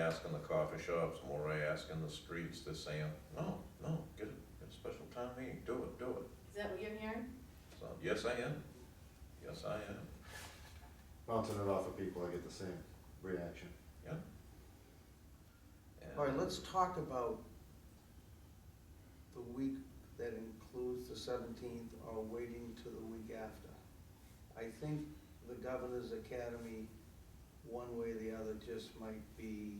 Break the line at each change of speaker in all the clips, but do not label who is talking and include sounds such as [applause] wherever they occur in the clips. asking the coffee shops, Moray asking the streets, they're saying, no, no, get a, get a special town meeting, do it, do it.
Is that what you're hearing?
So, yes, I am, yes, I am,
Bouncing it off of people, I get the same reaction.
yeah. And-
All right, let's talk about the week that includes the seventeenth or waiting to the week after. I think the Governor's Academy, one way or the other, just might be,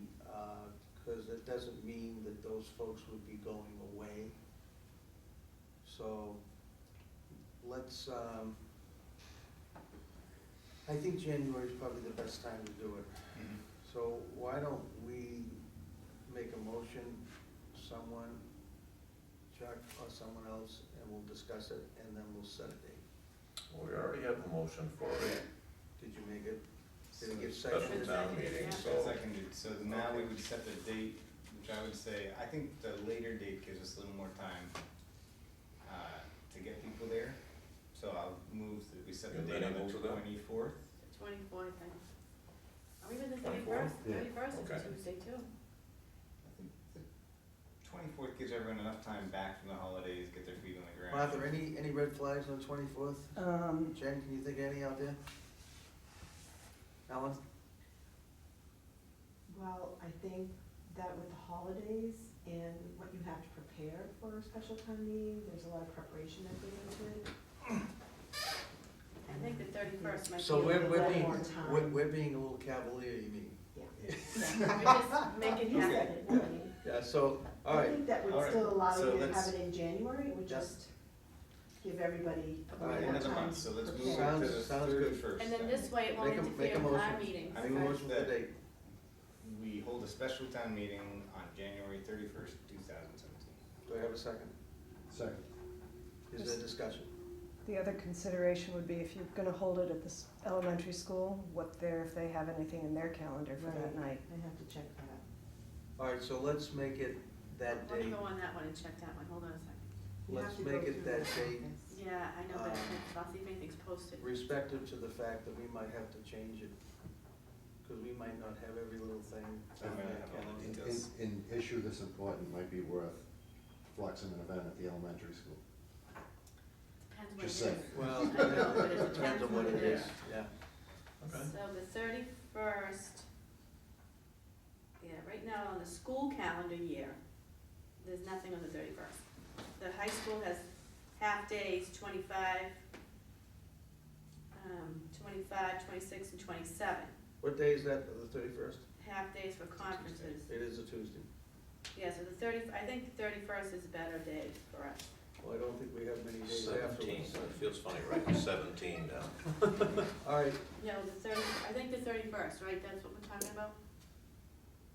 because it doesn't mean that those folks would be going away. So let's, um, I think January is probably the best time to do it. So why don't we make a motion, someone, Chuck or someone else, and we'll discuss it, and then we'll set a date.
We already have a motion for a
Did you make it? Did it get
special
seconded?
town meeting, so.
Seconded, so now we would set the date, which I would say, I think the later date gives us a little more time uh, to get people there. So I'll move that we set the
You're
date
amenable
on the
to that?
twenty-fourth.
The twenty-fourth, I, or even the
24th?
thirty-first, thirty-first is
Okay.
a Tuesday too.
I think the twenty-fourth gives everyone enough time back from the holidays, get their feet on the ground.
Martha, any, any red flags on twenty-fourth?
Um,
Jen, can you think of any out there? Alan?
well, I think that with the holidays and what you have to prepare for a special time meeting, there's a lot of preparation that goes into it.
I think the thirty-first might be.
So
a
we're,
little
we're
one
being, [laughs]
more
better.
time.
we're, we're being a little cavalier, you mean?
Yeah, We just make it
You said
happen.
it, I mean,
Yeah, so, all
I
right,
think that would
Alright,
still allow
so
you to
let's-
have it in January, it would
Yeah.
just give everybody a
Alright,
little more
Another
time.
month, so let's
to
move
prepare.
it to the
Sounds- sounds good.
thirty-first.
And then this way it won't
Make a- make a
interfere with our
motion.
meetings.
I
make a
mean,
right?
motion for the
that-
date.
We hold a special town meeting on January thirty-first, two thousand seventeen.
Do I have a second?
Second.
Is there discussion?
The other consideration would be if you're gonna hold it at this elementary school, what their, if they have anything in their calendar for that
Right.
night.
I have to check that.
All right, so let's make it that
Let me
date.
go on that one and check that one, hold on a second.
You have
Let's
to go
make it
through
that
the
date.
process.
Yeah, I know, but
Um,
I'll see if anything's posted.
respective to the fact that we might have to change it, because we might not have every little thing.
So I'm gonna have all the
An,
details.
an issue this important might be worth flexing an event at the elementary school.
Depends what it
Just
is.
saying.
Well,
I
[laughs]
know, but it
depends on what it is, yeah.
Okay.
So the thirty-first, yeah, right now on the school calendar year, there's nothing on the thirty-first. The high school has half days, twenty-five, um, twenty-five, twenty-six, and twenty-seven.
What day is that, the thirty-first?
Half days for conferences.
It is a Tuesday.
Yeah, so the thirty, I think the thirty-first is a better day for us.
Well, I don't think we have many days
Seventeen,
afterwards.
it feels funny writing seventeen down.
All right,
No, the thirty, I think the thirty-first, right, that's what we're talking about?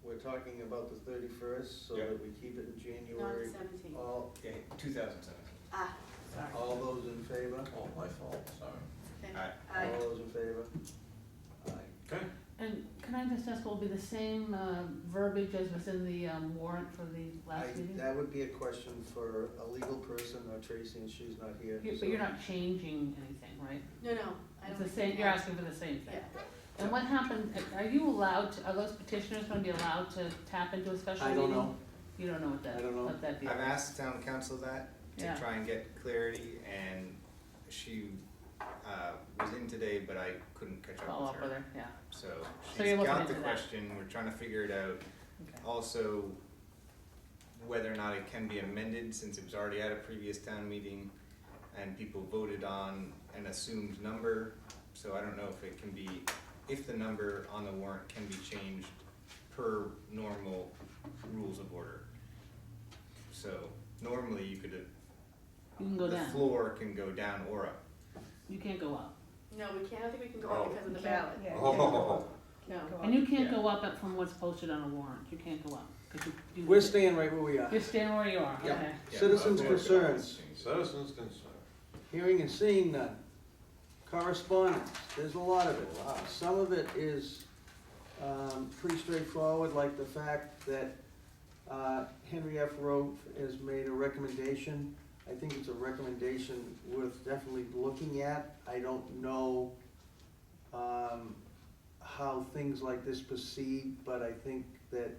we're talking about the thirty-first, so
Yeah.
that we keep it in
Not
January.
the seventeenth.
All,
Okay, two thousand seventeen.
Ah, sorry.
all those in favor?
Oh, my fault, sorry.
Okay.
Aye.
Aye.
All those in favor? Aye.
Okay.
And can I just ask, will it be the same uh, verbiage as was in the um, warrant for the
I,
last meeting?
that would be a question for a legal person, or Tracy, and she's not here.
You-
so-
But you're not changing anything, right?
No, no, I
It's
don't.
the same,
think-
you're asking for the same
Yeah.
thing. And what happened, are you allowed, to- are those petitioners gonna be allowed to tap into a special
I
meeting?
don't know.
You don't know what
I
that,
don't know.
what that be?
I've asked town council that to
Yeah.
try and get clarity and she, uh, was in today, but I couldn't catch
Follow
up
up
with
with
her.
her, yeah,
So
So
she's
you're looking
got
into
the
that.
question, we're trying to figure it out.
okay.
Also, whether or not it can be amended since it was already at a previous town meeting and people voted on an assumed number. So I don't know if it can be, if the number on the warrant can be changed per normal rules of order. So normally you could,
You can go
the
down,
floor can go down or up.
you can't go up.
No, we can't, I don't think we can go on because of the ballot.
yeah.
Oh,
No.
And you can't
Yeah.
go up at- from what's posted on a warrant, you can't go up, 'cause you, you.
We're staying right where we are.
You're staying where you are,
Yeah.
okay.
Yeah,
Citizens'
I'll work it out.
concerns.
citizens concerned.
Hearing and seeing none. Correspondence, there's a lot of it. Uh, Some of it is um, pretty straightforward, like the fact that uh, Henry F. Rowe has made a recommendation. I think it's a recommendation worth definitely looking at. I don't know um, how things like this proceed, but I think that